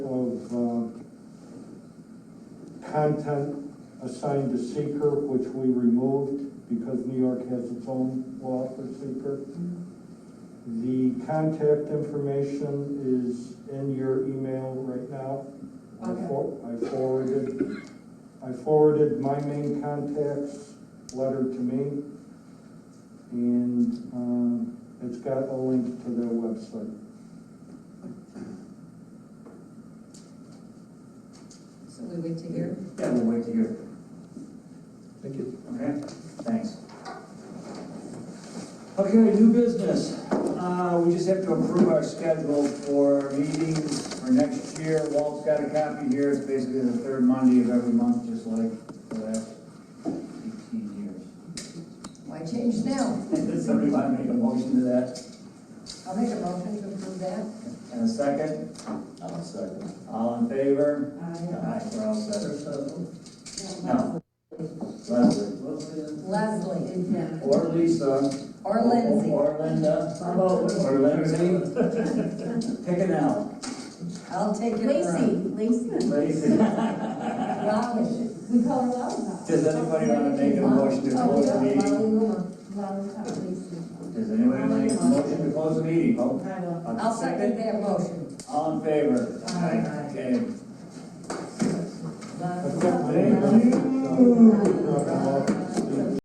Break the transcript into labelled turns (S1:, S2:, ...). S1: um, content assigned to seeker, which we removed because New York has its own law for seeker. The contact information is in your email right now. I
S2: Okay.
S1: for- I forwarded, I forwarded my main contact's letter to me. And, um, it's got a link to their website.
S2: So we wait to hear.
S3: Yeah, we'll wait to hear.
S4: Thank you.
S3: Okay, thanks. Okay, new business. Uh, we just have to approve our schedule for meetings for next year. Walt's got a copy here. It's basically the third Monday of every month, just like the last eighteen
S2: Why change now?
S3: years. Did somebody want to make a motion to that?
S2: I'll make a motion to approve that.
S3: And a second?
S4: I'll second.
S3: All in favor?
S2: Aye.
S3: Aye, we're all set.
S4: Leslie,
S3: No. Leslie.
S2: Leslie.
S3: Or Lisa.
S2: Or Lindsay.
S3: Or Linda. Or Lindsay. Pick an L.
S2: I'll take it.
S5: Lacey, Lacey.
S3: Lacey.
S2: Lally.
S5: We call her Lollipop.
S3: Does anybody want to make a motion to
S5: Oh,
S3: close the
S5: yeah,
S3: meeting?
S5: Lollipop, Lollipop, Lacey.
S3: Does anybody make a motion to close the meeting? Oh,
S5: I don't.
S2: I'll second that motion.
S3: All in favor?
S2: Aye.
S3: Okay.
S1: Thank
S2: Lally.
S1: you.